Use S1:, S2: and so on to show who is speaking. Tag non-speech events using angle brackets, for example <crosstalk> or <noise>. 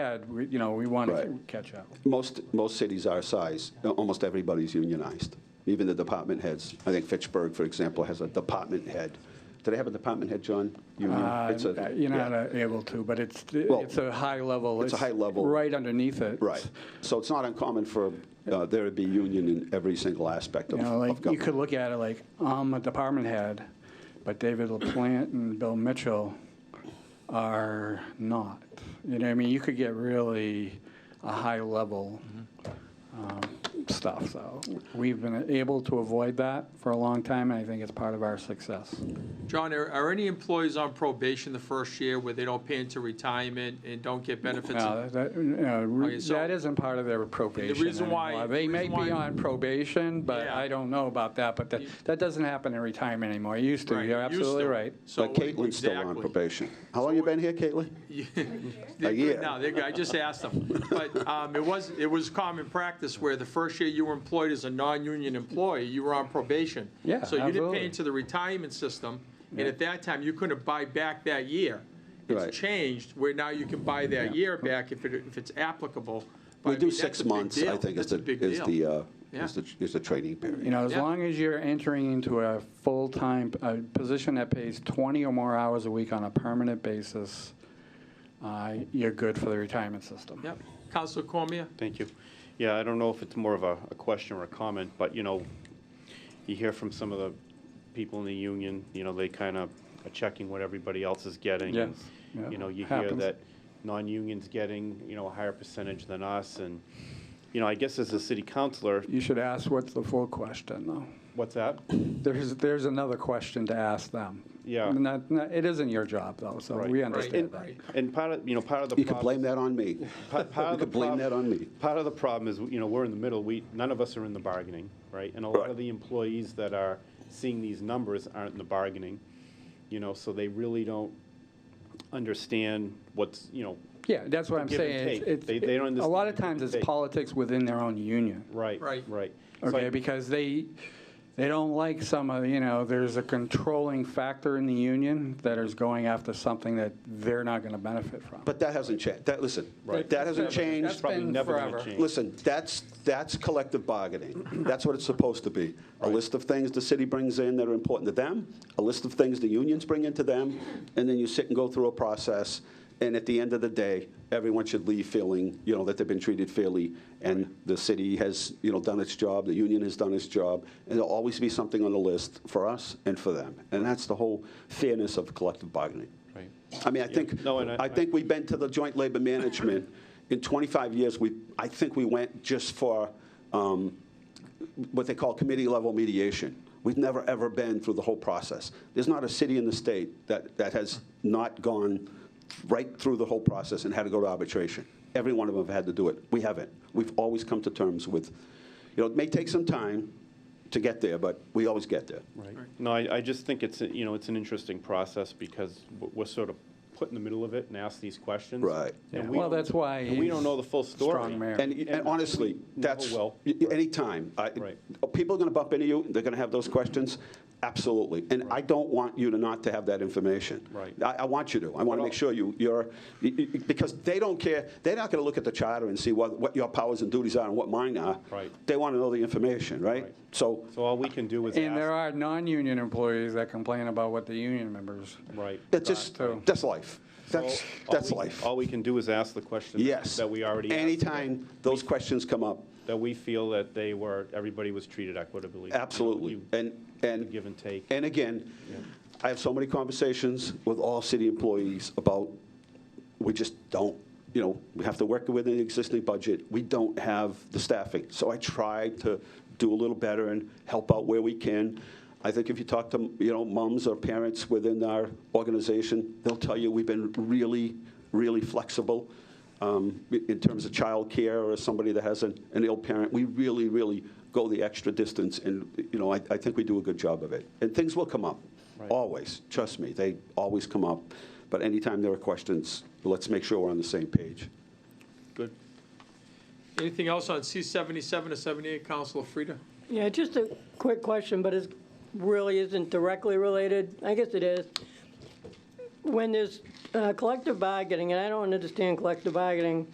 S1: had, we- you know, we wanted to
S2: Right.
S1: catch up.
S2: Most, most cities our size, almost everybody's unionized, even the department heads. I think Fitchburg, for example, has a department head. Do they have a department head, John? Union?
S1: Uh,
S2: It's a-
S1: You're
S2: yeah.
S1: not uh, able to, but it's,
S2: Well,
S1: it's a high level.
S2: it's a high level-
S1: Right underneath it.
S2: Right. So it's not uncommon for uh, there to be union in every single aspect
S1: You
S2: of
S1: know,
S2: of
S1: like, you
S2: government.
S1: could look at it like, I'm a department head, but David LaPlante and Bill Mitchell are not. You know, what I mean, you could get really a high level um, stuff, so. We've been able to avoid that for a long time, and I think it's part of our success.
S3: John, are, are any employees on probation the first year where they don't pay into retirement and don't get benefits?
S1: No, that, no, re-
S3: Okay, so-
S1: that isn't part of their probation
S3: reason why-
S1: anymore. They
S3: the
S1: may
S3: reason
S1: be
S3: why-
S1: on probation, but
S3: Yeah.
S1: I don't know about that, but that, that doesn't happen in retirement anymore. It used to,
S3: Right,
S1: you're
S3: it used
S1: absolutely
S3: to.
S1: right.
S3: So
S2: But Caitlin's still on
S3: exactly.
S2: probation. How long you been here, Caitlin?
S3: They're
S2: A
S3: good
S2: year.
S3: now, they're good. I just asked them. But um, it was, it was common practice where the first year you were employed as a non-union employee, you were on probation.
S1: Yeah,
S3: So you didn't
S1: absolutely.
S3: pay into the retirement system, and at that time, you couldn't buy back that year.
S2: Right.
S3: It's changed, where now you can buy that year back if it, if it's applicable. But
S2: We
S3: I
S2: do
S3: mean, that's
S2: six
S3: a big
S2: months, I
S3: deal.
S2: think, is
S3: That's a
S2: the,
S3: big
S2: is
S3: deal.
S2: the, uh,
S3: Yeah.
S2: is the, is the training period.
S1: You know, as
S3: Yeah.
S1: long as you're entering into a full-time, a position that pays 20 or more hours a week on a permanent basis, uh, you're good for the retirement system.
S3: Yep. Counselor Cormier?
S4: Thank you. Yeah, I don't know if it's more of a, a question or a comment, but, you know, you hear from some of the people in the union, you know, they kind of are checking what everybody else is getting. and,
S1: Yes, yeah,
S4: You know, you hear
S1: happens.
S4: that non-union's getting, you know, a higher percentage than us, and, you know, I guess as a city councillor,
S1: You should ask what's the full question, though.
S4: what's that?
S1: There's, there's another question to ask them.
S4: Yeah.
S1: Not- not- It isn't your job, though, so
S4: Right.
S1: we
S4: Right.
S1: understand that.
S4: And part of, you know, part of the.
S2: You could
S4: problem-
S2: blame that on me.
S4: Pa- part
S2: <laughs> You
S4: of the
S2: could blame
S4: prob-
S2: that on me.
S4: Part of the problem is, you know, we're in the middle, we, none of us are in the bargaining, right? And a lot
S2: Right.
S4: of the employees that are seeing these numbers aren't in the bargaining, you know, so they really don't understand what's, you know,
S1: Yeah, that's what I'm
S4: give and
S1: saying. It's-
S4: take.
S1: it's-
S4: They- they don't
S1: A lot of
S4: understand
S1: times
S4: the
S1: it's
S4: give and take.
S1: politics within their own union,
S4: right,
S3: Right.
S4: right. So I-
S1: okay? Because they, they don't like some of, you know, there's a controlling factor in the union that is going after something that they're not going to benefit from.
S2: But that hasn't changed. That, listen,
S4: Right.
S2: that hasn't
S1: That's been-
S2: changed.
S1: that's
S4: Probably
S1: been
S4: never gonna
S1: forever.
S4: change.
S2: Listen, that's, that's collective bargaining. <clears throat> That's what it's supposed to be. A list of things the city brings in that are important to them, a list of things the unions bring into them, and then you sit and go through a process. And at the end of the day, everyone should leave feeling, you know, that they've been treated fairly. And the city has, you know, done its job, the union has done its job. And there'll always be something on the list for us and for them. And that's the whole fairness of collective bargaining.
S4: Right.
S2: I mean, I think,
S4: No, and I-
S2: I think we've been to the joint labor management, in 25 years, we, I think we went just for um, what they call committee-level mediation. We've never, ever been through the whole process. There's not a city in the state that, that has not gone right through the whole process and had to go to arbitration. Every one of them have had to do it. We haven't. We've always come to terms with, you know, it may take some time to get there, but we always get there.
S4: Right. No, I, I just think it's, a- you know, it's an interesting process because w- we're sort of put in the middle of it and asked these questions.
S2: Right.
S4: And
S1: Yeah,
S4: we
S1: well,
S4: don't-
S1: that's why
S4: and We don't
S1: he's
S4: know the full story.
S1: strong mayor.
S2: And, and honestly,
S4: No,
S2: that's,
S4: well,
S2: y- y- anytime, I-
S4: Right.
S2: people are going to bump into you, they're going to have those questions, absolutely. And I don't want you to not to have that information.
S4: Right.
S2: I, I want you to, I want to make sure you, you're, y- y- because they don't care, they're not going to look at the charter and see what, what your powers and duties are and what mine are.
S4: Right.
S2: They want to know the information, right?
S4: Right.
S2: So,
S4: So all we can do is
S1: And there
S4: ask,
S1: are non-union employees that complain about what the union members.
S4: right.
S2: that's just,
S1: so-
S2: that's life, that's,
S4: All- all
S2: that's
S4: we-
S2: life.
S4: All we can do is ask the question that-
S2: Yes.
S4: that we already asked.
S2: Anytime those questions come up,
S4: That we feel that they were, everybody was treated equitably. You know,
S2: Absolutely.
S4: you-
S2: And, and.
S4: give and take.
S2: And again, I have so many conversations with all city employees about, we just don't, you know, we have to work within the existing budget. We don't have the staffing. So I try to do a little better and help out where we can. I think if you talk to, you know, moms or parents within our organization, they'll tell you we've been really, really flexible um, in terms of childcare or somebody that has an, an ill parent, we really, really go the extra distance, and, you know, I, I think we do a good job of it. And things will come up,
S4: Right.
S2: always, trust me, they always come up. But anytime there are questions, let's make sure we're on the same page.
S4: Good.
S3: Anything else on C seventy-seven or seventy-eight, Counselor Frida?
S5: Yeah, just a quick question, but it really isn't directly related. I guess it is. When there's uh, collective bargaining, and I don't understand collective bargaining